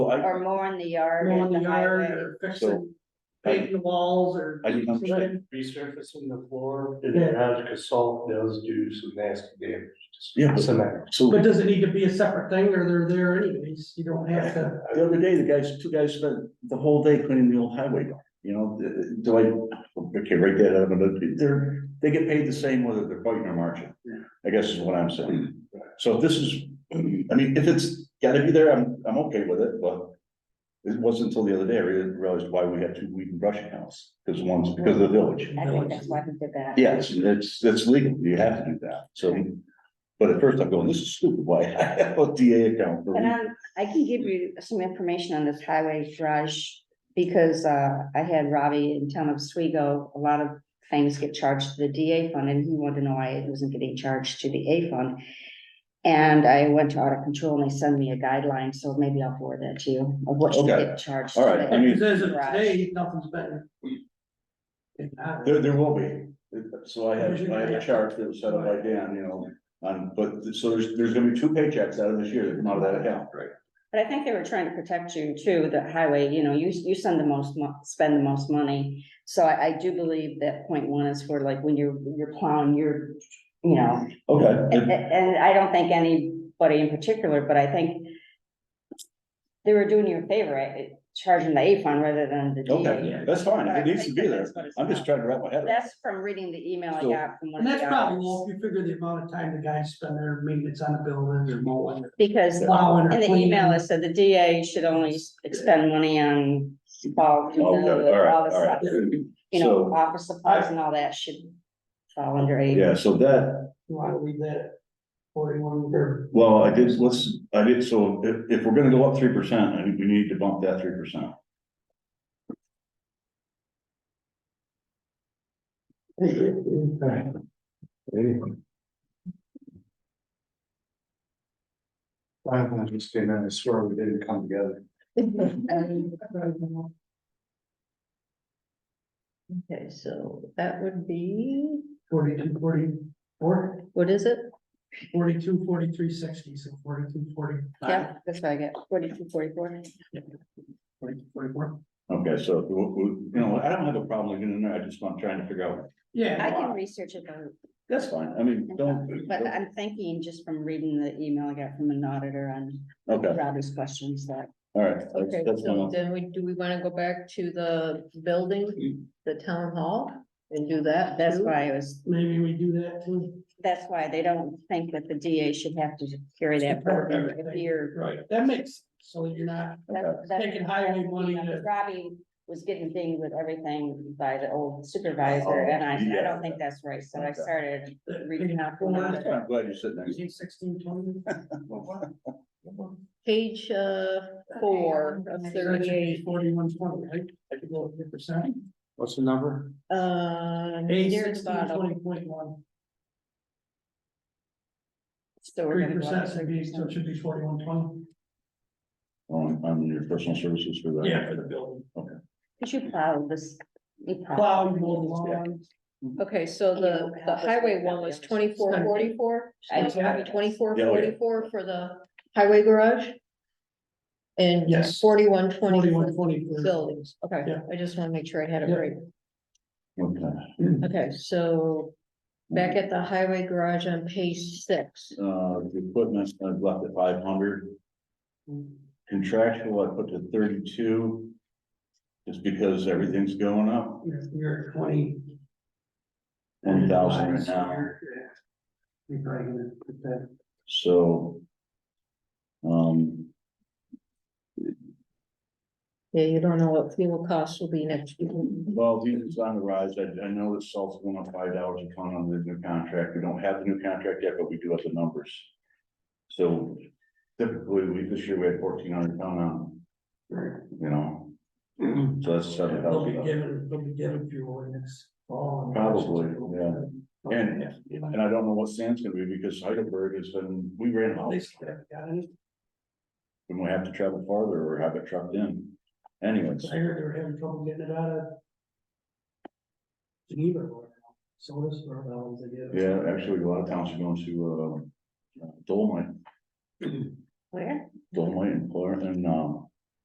I, or mowing the yard mowing and the the yard highway. or So- fixing, painting the walls or. I didn't understand. resurfacing the floor, and Yeah. as salt does do some nasty damage. to Yeah. Cement. so But does it need to be a separate thing or they're there anyways? You don't have to. the other day, the guys, two guys spent the whole day cleaning the old highway, yard, you know, the- do I, okay, right there, they're, they get paid the same whether they're fighting or marching. I guess is what I'm saying. So if this is, I mean, if it's gotta be there, I'm, I'm okay with it, but it wasn't until the other day I really realized why we had two weed and brush accounts, because one's because of the village. I think that's why we did that. Yes, it's, it's legal, you have to do that, so. But at first I'm going, this is stupid, why I have a DA account? for But weed? i I can give you some information on this highway garage, because, uh, I had Robbie in town of Swego, a lot of things get charged to the DA fund, and he wanted to know why it wasn't getting charged to the A fund. And I went to audit control, and they sent me a guideline, so maybe I'll forward that to you, of what should Okay. get charged. All right, to I the- mean- Because as of today, nothing's been. It's not- There, there will be, so I have, I have a chart that was set up by Dan, you know, um, but, so there's, there's gonna be two paychecks out of this year that come out of that account. Right. But I think they were trying to protect you too, the highway, you know, you, you send the most, mo- spend the most money. So I, I do believe that point one is for like when you're, you're plowing, you're, you know, a- a- Okay, and I don't think anybody in particular, but I think they were doing you a favor, eh, charging the A fund rather than the D. okay, that's fine, But I it needs to think be that there, that's what it's I'm just about. trying to wrap my head around. it. That's from reading the email I So- got from one And of the. that's probably others. low, if you figure the amount of time the guys spend there, maintenance on the building or mowing or Because plowing or in the cleaning. email, it said the DA should only expend money on ball, Okay, Oh, all right, all this all stuff. right. you know, So- office supplies and all that should fall under A. Yeah, so that, You wanna leave that forty-one or well, I did, let's, I did, so if, if we're gonna go up three percent, I think we need to bump that three percent. I don't understand, I swear we didn't come together. Okay, so that would be, forty-two, forty-four, what is it? forty-two, forty-three, sixty, so forty-two, forty-five. Yeah, that's what I get, forty-two, forty-four. Forty-two, forty-four. Okay, so, we- we- you know, I don't have a problem getting in there, I just, I'm trying to figure out, Yeah. I can research it, though, that's fine, I mean, don't. but I'm thinking just from reading the email I got from an auditor on Okay, Robbie's questions that. all right, Okay, that's, that's so one, then we, do we wanna go back to the building, the town hall and do that? That's too? why I was, Maybe we do that too. that's why they don't think that the DA should have to carry that burden if you're. Right. That makes, so you're not, that- that- Taking highway money to- Robbie was getting dinged with everything by the old Oh, supervisor, and I, I don't think that's right, so I started reading out. from the auditor. I'm glad you said that. Using sixteen, twenty. Page, uh, four of thirty-eight, Forty-one, twenty, right? I could go three percent. What's the number? uh, A near the sixteen, bottom. twenty point one, So we're three gonna go up percent, to so it should be forty-one, twenty. On, on your personal services for that. building. Cause you plow this. you plow. Plow, you mow the lawn. Okay, so the, the highway one was twenty-four forty-four, I- twenty-four Yeah, oh, yeah. forty-four for the highway garage? And Yes. forty-one twenty Forty-one, for twenty. the buildings, okay, Yeah. I just wanna make sure I had it Yeah. right. Okay. Okay, so back at the highway garage on page six, Uh, the equipment, I've left at five hundred. Contractual, I put to thirty-two. Just because everything's going up, You're- You're at twenty. one thousand right now, You're you're probably gonna put that. so. Um, yeah, you don't know what fuel costs will be next year. well, diesel's on the rise, I, I know that salt's going up five dollars a ton on the new contract, we don't have the new contract yet, but we do have the numbers. So typically, we, this year we had fourteen hundred ton on, you know, so that's seven They'll be thousand. given, they'll be given fuel in this fall. Probably, yeah. And- And I don't know what sand's gonna be because Heidelberg has been, we ran At out, least they haven't got any. and we have to travel farther or have it trucked in. Anyways, I heard they were having trouble getting it out of. Geneva. or Sodas or valves they get. yeah, actually, a lot of towns are going to, uh, Dolomite, Where? Dolomite and Florida and, um,